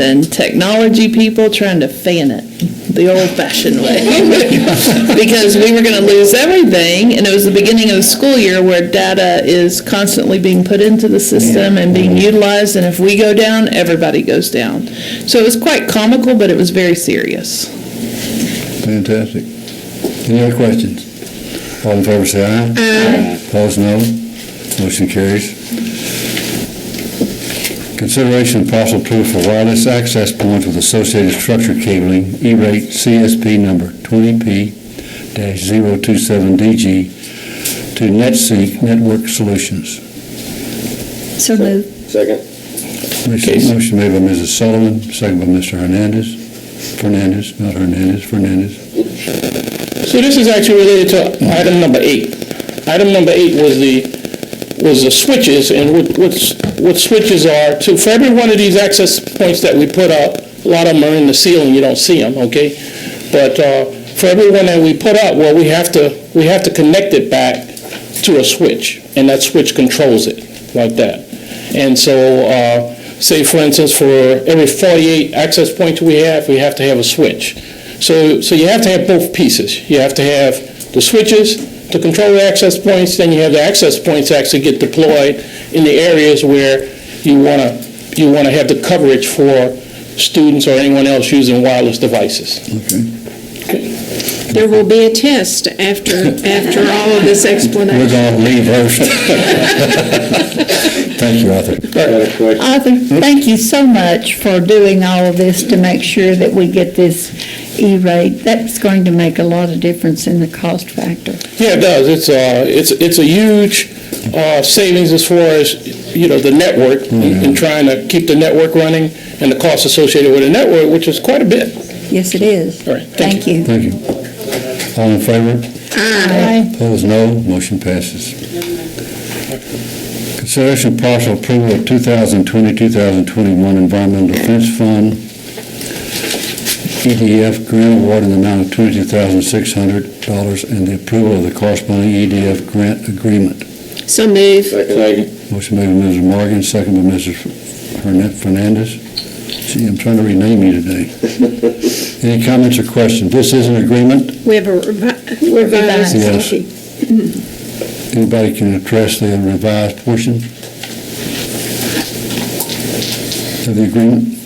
than technology people trying to fan it the old-fashioned way. Because we were going to lose everything, and it was the beginning of the school year where data is constantly being put into the system and being utilized, and if we go down, everybody goes down. So it was quite comical, but it was very serious. Fantastic. Any other questions? All in favor, say aye. Aye. Opposed, no. Motion carries. Consideration and possible approval for wireless access points with associated structure cabling, E-rate CSP number 20P-027DG to NetSync Network Solutions. So moved. Second. Motion made by Mrs. Sullivan, second by Mr. Hernandez. Fernandez, not Hernandez, Fernandez. So this is actually related to item number eight. Item number eight was the, was the switches, and what, what's- what switches are, to, for every one of these access points that we put up, a lot of them are in the ceiling, you don't see them, okay? But uh, for every one that we put up, well, we have to, we have to connect it back to a switch, and that switch controls it, like that. And so, uh, say for instance, for every 48 access points we have, we have to have a switch. So, so you have to have both pieces. You have to have the switches to control the access points, then you have the access points actually get deployed in the areas where you want to, you want to have the coverage for students or anyone else using wireless devices. Okay. There will be a test after, after all of this We're explanation. going to leave first. Thank you, Arthur. Arthur, thank you so much for doing all of this to make sure that we get this E-rate. That's going to make a lot of difference in the cost factor. Yeah, it does. It's a, it's, it's a huge uh, savings as far as, you know, the network and trying to keep the network running and the costs associated with a network, which is quite a bit. Yes, it is. All right, thank you. Thank you. All in favor? Aye. Opposed, no. Motion passes. Consideration of partial approval of 2020-2021 Environmental Defense Fund, EDF grant award in the amount of $22,600 and the approval of the corresponding EDF grant agreement. So move. Second. Motion made by Mrs. Morgan, second by Mrs. Fernan- Fernandez. Gee, I'm trying to rename you today. Any comments or questions? This is an agreement. We have a revi- revised Yes. copy. Anybody can address the revised portion of the agreement?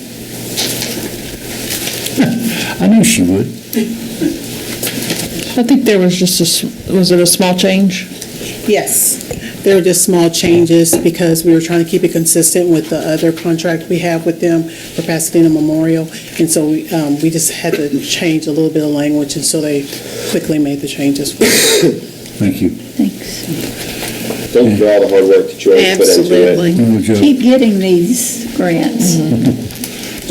I knew she would. I think there was just a, s- was it a small change? Yes, they were just small changes because we were trying to keep it consistent with the other contract we have with them for Pasadena Memorial. And so we um, we just had to change a little bit of language, and so they quickly made the changes. Thank you. Thanks. Thank you for all the hard work that you always put into it. Absolutely. Little joke. Keep getting these grants.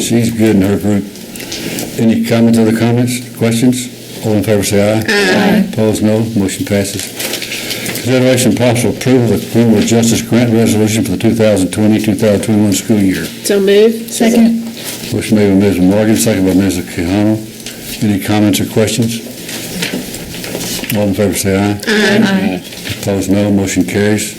She's good in her group. Any comments, other comments, questions? All in favor, say aye. Aye. Opposed, no. Motion passes. Consideration and possible approval of the criminal justice grant resolution for the 2020-2021 school year. So move. Second. Motion made by Mrs. Morgan, second by Mrs. Quijano. Any comments or questions? All in favor, say aye. Aye. Opposed, no. Motion carries.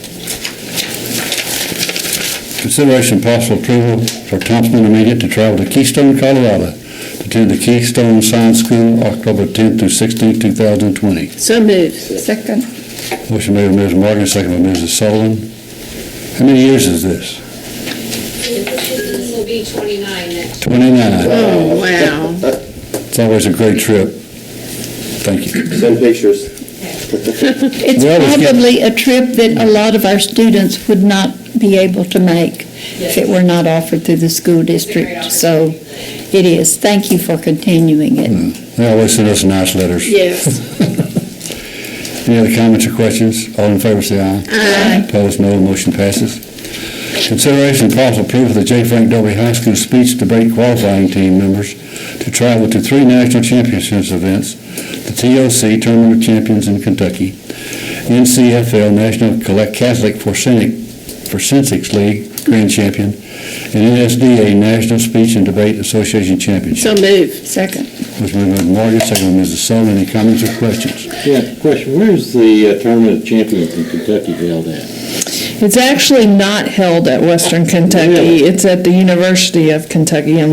Consideration and possible approval for Thompson Intermediate to travel to Keystone, Colorado to attend the Keystone Science School, October 10th through 16th, 2020. So move. Second. Motion made by Mrs. Morgan, second by Mrs. Sullivan. How many years is this? This will be 29 next 29. Oh, wow. It's always a great trip. Thank you. Send pictures. It's We always get- probably a trip that a lot of our students would not be able to make if it were not offered through the school district. So it is. Thank you for continuing it. They always send us nice letters. Yes. Any other comments or questions? All in favor, say aye. Aye. Opposed, no. Motion passes. Consideration and possible approval of the J. Frank Dobie High School speech debate qualifying team members to travel to three national championships events, the TOC Tournament of Champions in Kentucky, NCFL National Collect- Catholic Forsynic- Forensics League Grand Champion, and NSDA National Speech and Debate Association Championship. So move. Second. Motion made by Morgan, second by Mrs. Sullivan. Any comments or questions? Yeah, question, where's the uh, tournament of champions in Kentucky held at? It's actually not held at Western Kentucky. It's at the University of Kentucky in